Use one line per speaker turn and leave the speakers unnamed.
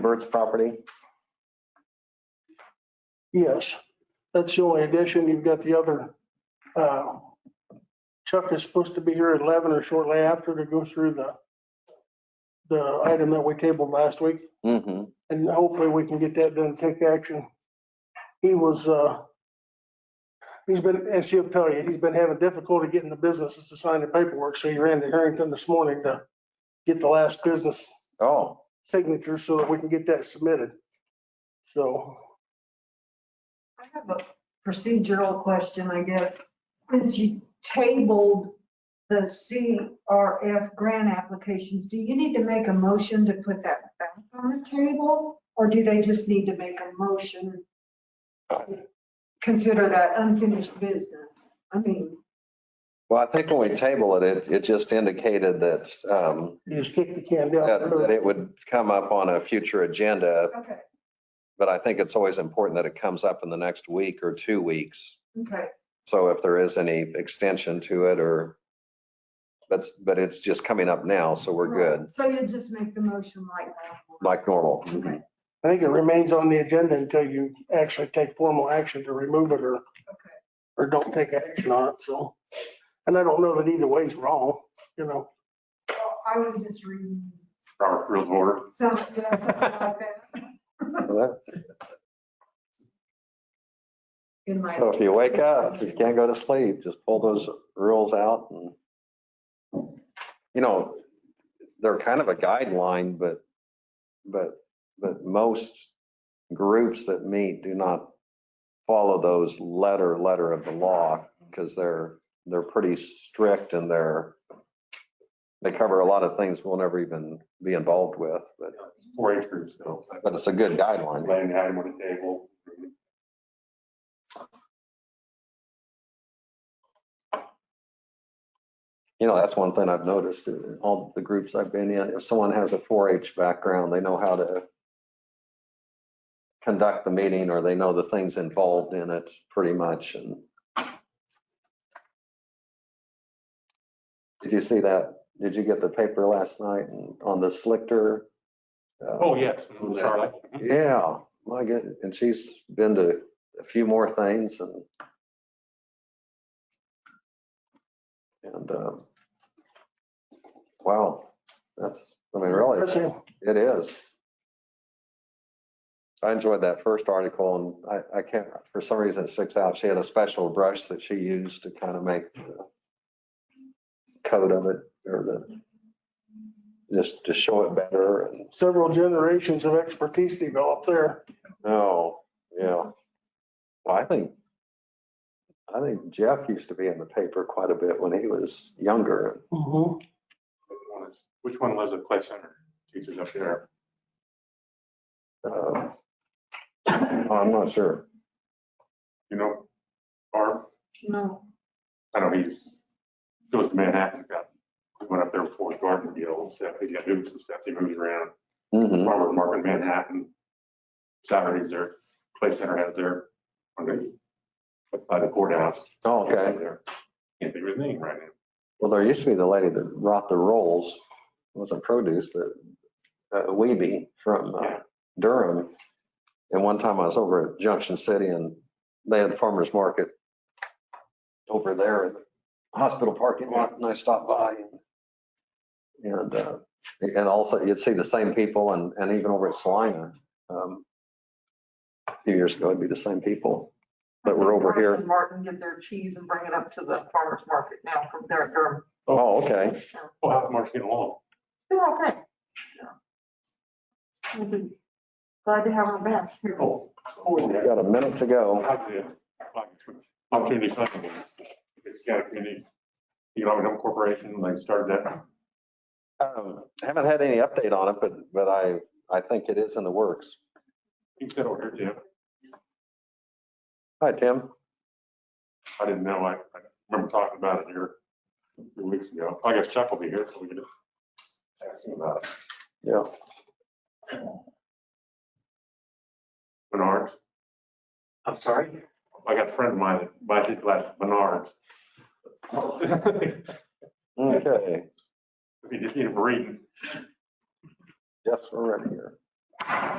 Bird's property?
Yes, that's the only addition. You've got the other, uh, Chuck is supposed to be here at 11 or shortly after to go through the, the item that we tabled last week,
Mm-hmm.
and hopefully we can get that done, take action. He was, uh, he's been, as she'll tell you, he's been having difficulty getting the businesses to sign the paperwork, so he ran to Harrington this morning to get the last business
Oh,
signature so that we can get that submitted. So
I have a procedural question, I guess. Since you tabled the CRF grant applications, do you need to make a motion to put that back on the table? Or do they just need to make a motion to consider that unfinished business? I mean,
well, I think when we tabled it, it, it just indicated that, um,
you just kick the can down. the
that,
road.
that it would come up on a future agenda,
okay,
but I think it's always important that it comes up in the next week or two weeks.
okay,
So if there is any extension to it or that's, but it's just coming up now, so we're good,
so you just make the motion like that?
like normal.
Okay,
I think it remains on the agenda until you actually take formal action to remove it or, or don't take action on it, so. And I don't know that either way's wrong, you know.
Well, I was just reading
Robert Rules of Order.
something, yeah, something like that in my.
So if you wake up, if you can't go to sleep, just pull those rules out and, you know, they're kind of a guideline, but, but, but most groups that meet do not follow those letter, letter of the law because they're, they're pretty strict and they're, they cover a lot of things we'll never even be involved with, but,
four H groups, so
but it's a good guideline.
laying the item on the table.
You know, that's one thing I've noticed in all the groups I've been in. If someone has a 4-H background, they know how to conduct the meeting or they know the things involved in it pretty much. And did you see that? Did you get the paper last night and on the Slichter? Uh,
Oh, yes. Charlotte.
Yeah, my goodness. And she's been to a few more things and and um, wow, that's, I mean, really,
That's it.
it is. I enjoyed that first article and I, I can't, for some reason it sticks out. She had a special brush that she used to kind of make the coat of it or the, just to show it better. And
Several generations of expertise developed there.
Oh, yeah. Well, I think, I think Jeff used to be in the paper quite a bit when he was younger.
Mhm.
Which one lives at Clay Center? Teachers up there.
Uh, I'm not sure.
You know, Barb,
No,
I know he's, goes to Manhattan, got, he went up there before his garden deal and stuff. He got hoops and stuff. He moves around.
Mhm.
Farmer Market in Manhattan. Saturdays there, Clay Center has their, on the, by the courthouse.
Oh, okay.
Can't think of his name right now.
Well, there used to be the lady that brought the rolls, It wasn't produce, but uh, Weeby from uh, Durham. And one time I was over at Junction City and they had farmer's market over there in the hospital parking lot and I stopped by and and, uh, and also you'd see the same people and, and even over at Salina. um, A few years ago, it'd be the same people that were over here.
Martin get their cheese and bring it up to the farmer's market now from there at Durham.
Oh, okay.
Oh, how's Mark's getting along?
They're all good. We'll be Glad to have her back.
Oh,
We've
oh,
got a minute to go.
Opportunity funding. It's got a community, economic development corporation, they started that.
Um, Haven't had any update on it, but, but I, I think it is in the works.
You said over here, Jim.
Hi, Tim.
I didn't know. I I remember talking about it here a few weeks ago. I guess Chuck will be here, so we can ask him about it.
Yeah.
Menards.
I'm sorry?
I got a friend of mine that buys his glass at Menards.
Okay.
If you just need a breathe.
Yes, we're ready here.